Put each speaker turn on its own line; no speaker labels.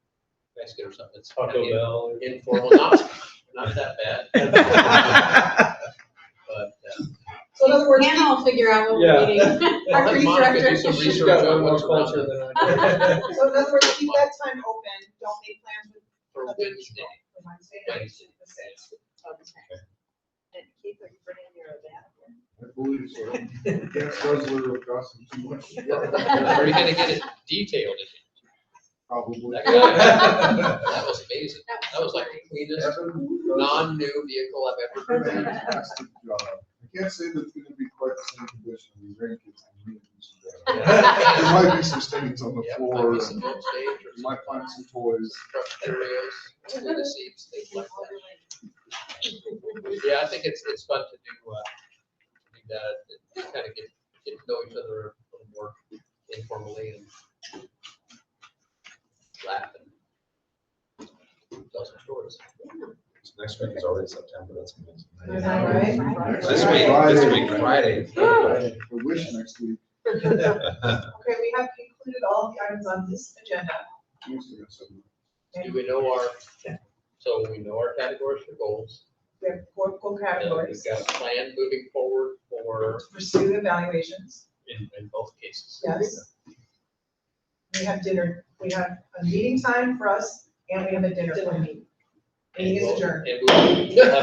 Mexican or something. It's
Taco
kinda
Bell.
informal, not, not that bad. But, uh,
So in other words,
Hannah will figure out what
Yeah.
we're meeting. Our
Let
grease
Monica do
director.
some
She's
research
got
on
way more
what's around
culture
it
than I do.
so in other words, keep that time open, don't make plans with.
for Wednesday.
for Wednesday night, the sixth.
And Keith, are you bringing your van?
I believe so. Can't guzzler will cost them too much.
Are you gonna get it detailed? in
Probably.
That guy- That was amazing. That was like the cleanest,
Evan does
non-new vehicle I've
a
ever driven.
fantastic job. I can't say that it's gonna be quite the same condition as the grandkids. can meet and see that. There might be some stains on the
Yeah, might
floor,
be
and
some home stage or
you might find some toys.
truck areas, under the seats, things like that. Yeah, I think it's, it's fun to do, uh, do that, kind of get, get to know each other a little more informally and laugh and tell some stories.
Next week is already September, that's
Is
amazing.
that right?
Next
This week, this week, Friday.
I wish next week,
Okay, we have included all the items on this agenda.
Tuesday or something.
Do we know our, so we know our categories for goals?
We have four core
and We've
categories,
got a plan moving forward for,
pursue evaluations,
in, in both cases.
yes. We have dinner, we have a meeting time for us, and we have a dinner for me. Meeting is adjourned.
And we'll- we'll have